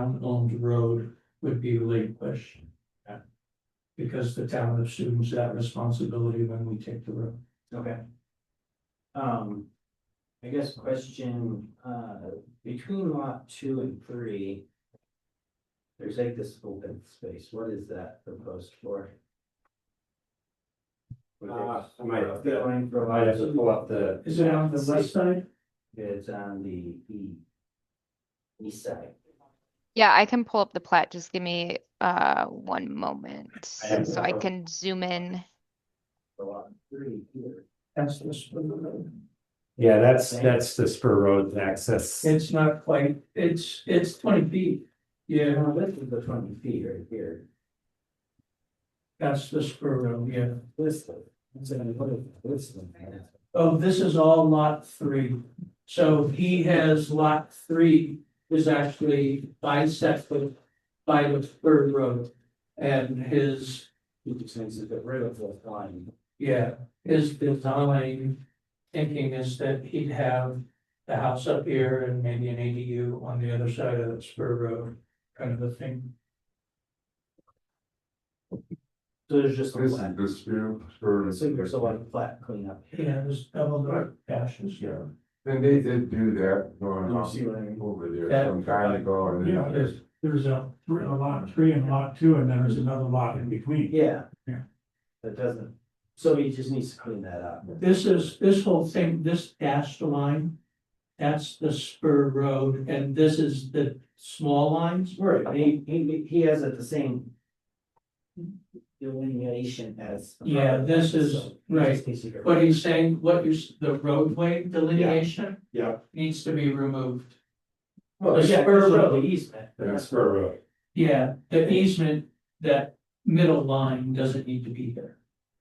town-owned road would be relinquished. Okay. Because the town assumes that responsibility when we take the road. Okay. Um, I guess question, uh, between lot two and three. There's like this open space, what is that proposed for? Uh, I might have The to- line for I might lot have to two, pull up the, Is it on the right side? it's on the, the. East side, Yeah, I can pull up the plat. Just give me uh one moment have so I it. can zoom in. for lot three here, That's the spur road. yeah, that's, that's the spur road access. It's not quite, it's, it's twenty feet. Yeah, Yeah, now this is the twenty feet right here, that's the spur road, yeah. this, it's gonna put this one. Oh, this is all lot three. So he has lot three is actually bisected by the spur road. And his You just need to get rid of the line. Yeah, his design thinking is that he'd have the house up here and maybe an ADU on the other side of the spur road, kind of a thing. So there's just. a This line. is this view, or So there's a lot of flat cleanup. He has double the dashes, yeah. and they did do that going You on see what I mean? over there That- some time ago, and Yeah, then there's, there's a, three- a lot three and lot two, and then there's another lot in between. Yeah. Yeah. That doesn't, so he just needs to clean that up. This is, this whole thing, this dashed line, that's the spur road, and this is the small lines. Right, and he, he, he has it the same. Delineation as. the Yeah, other this one, is- so he right. just needs to get rid What of it. he's saying, what you, s- the roadway delineation Yeah. needs to be removed. Well, yeah, spur it's road. the easement. Yeah, spur road. Yeah, the easement, that middle line doesn't need to be there.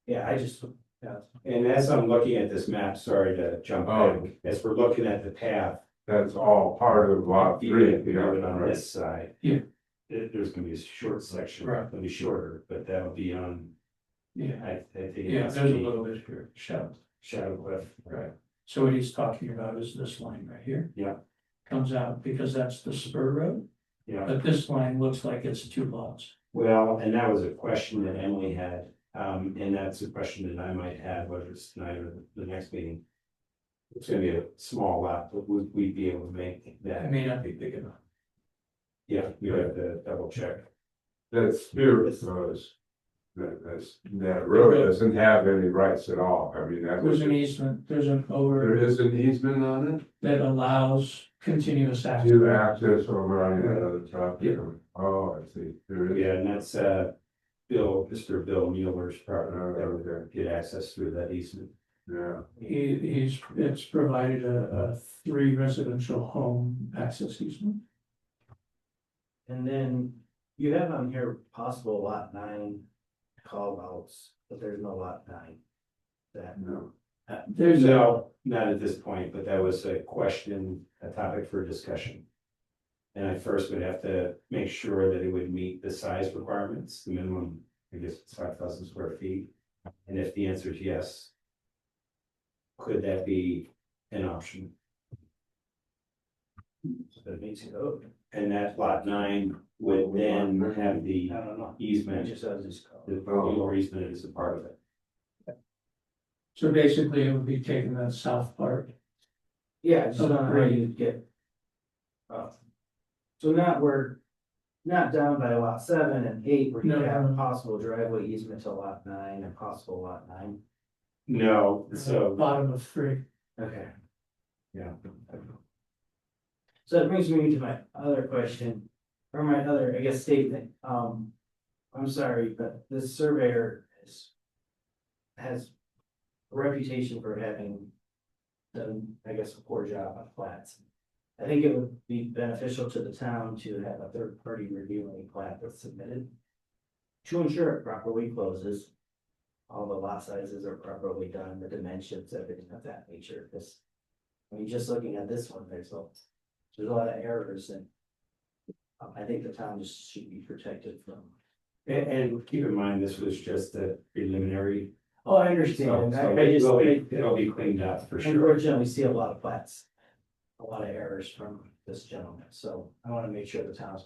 Yeah, I just, yeah, And as I'm looking at this map, sorry to jump Oh. back, as we're looking at the path. that's all part of lot three. Even even on this side. Yeah. there- there's gonna be a short section, Right. it'll be shorter, but that'll be on, Yeah. I, I think. Yeah, it's there's a the little bit here, shoved. Shadow cliff. Right. So what he's talking about is this line right here. Yeah. Comes out because that's the spur road, Yeah. but this line looks like it's two lots. Well, and that was a question that Emily had, um, and that's a question that I might have, whether it's tonight or the next meeting. It's gonna be a small lot, but would we be able to make It that? may not be big enough. Yeah, you have to double check. That spirit goes. That that's, that road doesn't have any rights at all, I mean, that was, There's an easement, there's an there over is an easement on that allows continuous it, access. to access over on the other property, oh, I see, there is. Yeah, and that's, uh, Bill, Mr. Bill Mueller's partner, that would Okay, get access through that easement. yeah, He, he's, it's provided a, a three residential home access easement. and then you have on here possible lot nine call outs, but there's no lot nine. That. no, There's a, No, not at this point, but that was a question, a topic for discussion. And I first would have to make sure that it would meet the size requirements, the minimum, I guess it's five thousand square feet. And if the answer is yes. Could that be an option? So it makes it open, And that lot nine would then have the I don't know, I easement, just, I was just. calling. the legal easement is a part of it. so basically it would be taking that south part. Yeah, I just Okay, don't know how great. you'd get. uh, So not we're not down by lot seven and eight, where you No, have no, a no. possible driveway easement to lot nine and possible lot nine. No, so. Bottom of three. Okay. Yeah. So that brings me to my other question, or my other, I guess, statement, um. I'm sorry, but this surveyor is. Has a reputation for having. Done, I guess, a poor job on plats. I think it would be beneficial to the town to have a third party review any plat that's submitted. To ensure it properly closes all the lot sizes are properly done, the dimensions, everything of that nature, because. I mean, just looking at this one, there's a, there's a lot of errors and. um, I think the town just should be protected from. And, and keep in mind, this was just a preliminary. Oh, I So, understand, so I, I it just, will be- I it'll be cleaned up for sure. unfortunately see a lot of plats. A lot of errors from this gentleman, so I wanna make sure the town's